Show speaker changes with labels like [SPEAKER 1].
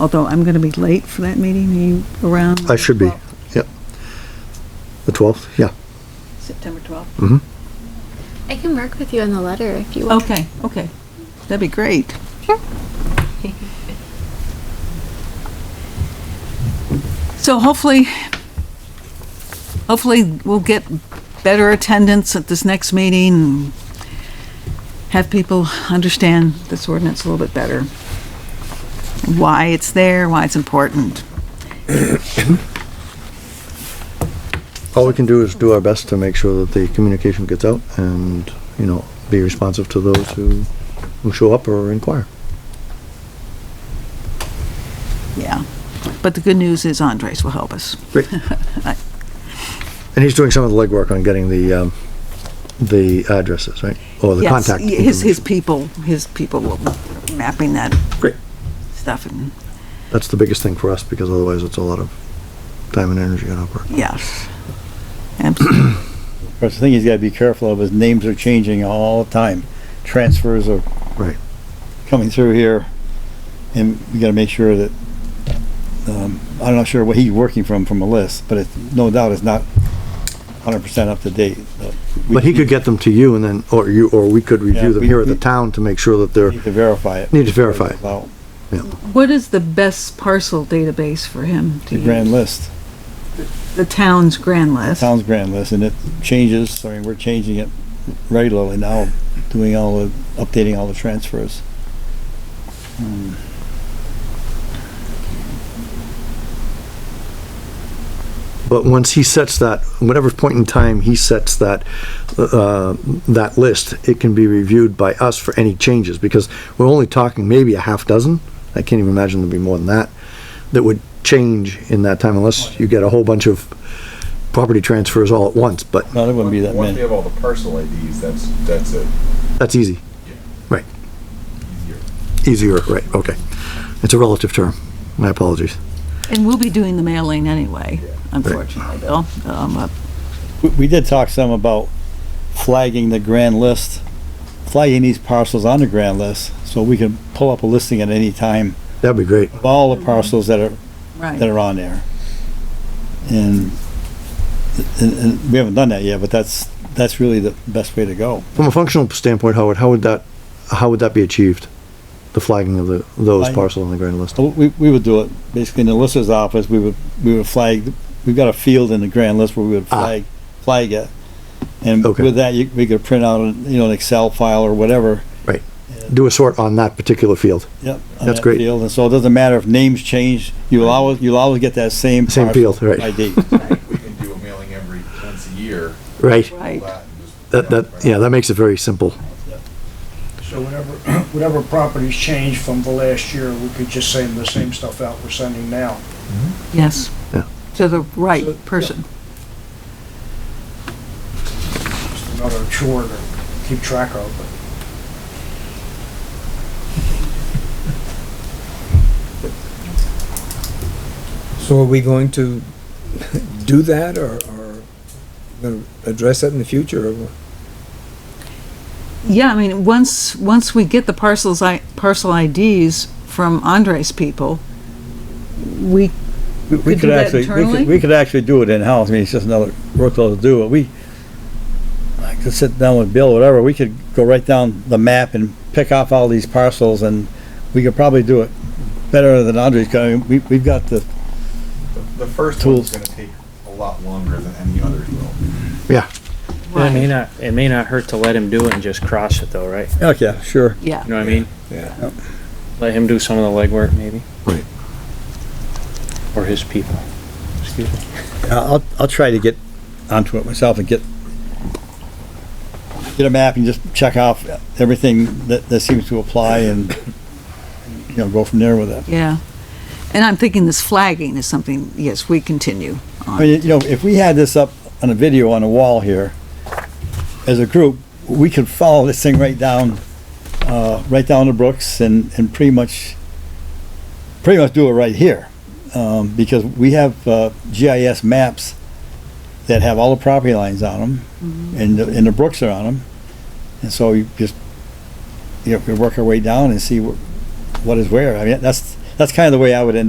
[SPEAKER 1] although I'm going to be late for that meeting. Are you around?
[SPEAKER 2] I should be, yep. The 12th, yeah.
[SPEAKER 1] September 12th.
[SPEAKER 3] I can work with you on the letter if you want.
[SPEAKER 1] Okay, okay. That'd be great.
[SPEAKER 3] Sure.
[SPEAKER 1] So hopefully, hopefully we'll get better attendance at this next meeting, and have people understand this ordinance a little bit better. Why it's there, why it's important.
[SPEAKER 2] All we can do is do our best to make sure that the communication gets out and, you know, be responsive to those who, who show up or inquire.
[SPEAKER 1] Yeah. But the good news is Andres will help us.
[SPEAKER 2] Great. And he's doing some of the legwork on getting the, um, the addresses, right? Or the
[SPEAKER 1] Yes,
[SPEAKER 2] contact.
[SPEAKER 1] y- His, his
[SPEAKER 2] information.
[SPEAKER 1] people, his people will mapping that
[SPEAKER 2] Great.
[SPEAKER 1] stuff and,
[SPEAKER 2] That's the biggest thing for us because otherwise it's a lot of time and energy and upwork.
[SPEAKER 1] yes. Absolutely.
[SPEAKER 4] Of course, the thing he's got to be careful of is names are changing all the time. Transfers are
[SPEAKER 2] Right.
[SPEAKER 4] coming through here, and we got to make sure that um, I'm not sure what he's working from from a list, but it's no doubt it's not 100 percent up to date. But we
[SPEAKER 2] But he could get them to you and then, or you, or we could
[SPEAKER 4] Yeah,
[SPEAKER 2] review them
[SPEAKER 4] we-
[SPEAKER 2] here at the
[SPEAKER 4] we-
[SPEAKER 2] town to make sure that they're,
[SPEAKER 4] need to verify it.
[SPEAKER 2] Need to verify it.
[SPEAKER 4] About
[SPEAKER 1] What is the best parcel database for him to
[SPEAKER 4] the
[SPEAKER 1] use?
[SPEAKER 4] grand list,
[SPEAKER 1] The town's grand list.
[SPEAKER 4] town's grand list, and it changes. I mean, we're changing it regularly now, doing all the updating all the transfers.
[SPEAKER 2] But once he sets that, whatever point in time he sets that, uh, that list, it can be reviewed by us for any changes, because we're only talking maybe a half dozen, I can't even imagine there'd be more than that, that would change in that time unless you get a whole bunch of property transfers all at once, but
[SPEAKER 4] No, there wouldn't be that
[SPEAKER 5] Once we
[SPEAKER 4] many.
[SPEAKER 5] have all the parcel IDs, that's, that's it.
[SPEAKER 2] that's easy. Right, easier,
[SPEAKER 5] Easier.
[SPEAKER 2] right, okay. It's a relative term, my apologies.
[SPEAKER 1] And we'll be doing the mailing anyway, unfortunately, Bill. Um, uh,
[SPEAKER 4] We, we did talk some about flagging the grand list, flagging these parcels on the grand list, so we can pull up a listing at any time
[SPEAKER 2] That'd be great.
[SPEAKER 4] of all the parcels that are, that
[SPEAKER 1] Right.
[SPEAKER 4] are on there. And, and, and we haven't done that yet, but that's, that's really the best way to go.
[SPEAKER 2] From a functional standpoint, Howard, how would that, how would that be achieved? The flagging of the, those
[SPEAKER 4] Flag-
[SPEAKER 2] parcels on the grand list?
[SPEAKER 4] So we, we would do it, basically in the lister's office, we would, we would flag, we've got a field in the grand list where we would
[SPEAKER 2] Ah.
[SPEAKER 4] flag, flag it. And
[SPEAKER 2] Okay.
[SPEAKER 4] with that, you, we could print out, you know, an Excel file or whatever,
[SPEAKER 2] do a sort on that particular field.
[SPEAKER 4] Yep. on
[SPEAKER 2] That's
[SPEAKER 4] that
[SPEAKER 2] great.
[SPEAKER 4] field. And so it doesn't matter if names change, you'll always, you'll always get that same.
[SPEAKER 2] Same
[SPEAKER 4] parcel
[SPEAKER 2] field, right.
[SPEAKER 4] ID.
[SPEAKER 5] We can do a mailing every, once a year.
[SPEAKER 2] Right.
[SPEAKER 1] Right.
[SPEAKER 5] flat, and just-
[SPEAKER 2] That, that, yeah, that makes it very simple.
[SPEAKER 6] So whatever, whatever properties change from the last year, we could just send the same stuff out we're sending now.
[SPEAKER 1] Yes.
[SPEAKER 2] Yeah.
[SPEAKER 1] To the right person.
[SPEAKER 6] Just another chore to keep track of, but
[SPEAKER 7] So are we going to do that or, or gonna address that in the future? or what?
[SPEAKER 1] Yeah, I mean, once, once we get the parcels, I, parcel IDs from Andres people, we,
[SPEAKER 4] We
[SPEAKER 1] do
[SPEAKER 4] could
[SPEAKER 1] that
[SPEAKER 4] actually, we
[SPEAKER 1] internally?
[SPEAKER 4] could, we could actually do it in-house. I mean, it's just another workload to do, but we, I could sit down with Bill, whatever, we could go right down the map and pick off all these parcels and we could probably do it better than Andre's, 'cause I mean, we, we've got the,
[SPEAKER 5] The first one's gonna take a lot longer than any others will.
[SPEAKER 8] It may not, it may not hurt to let him do it and just cross it though, right?
[SPEAKER 4] okay, sure.
[SPEAKER 1] yeah.
[SPEAKER 8] You know what I mean?
[SPEAKER 7] Yeah.
[SPEAKER 8] Let him do some of the legwork maybe?
[SPEAKER 2] Right.
[SPEAKER 8] Or his people. Excuse me.
[SPEAKER 4] I'll, I'll try to get onto it myself and get, get a map and just check off everything that, that seems to apply and, you know, go from there with it.
[SPEAKER 1] Yeah. And I'm thinking this flagging is something, yes, we continue
[SPEAKER 4] I mean, you know, if we had this up on a video on a wall here, as a group, we could follow this thing right down, uh, right down to Brooks and, and pretty much, pretty much do it right here. Um, because we have, uh, GIS maps that have all the property lines on them and, the- and the brooks are on them. And so you just, you know, we work our way down and see wh- what is where. I mean, that's, that's kind of the way I would end up.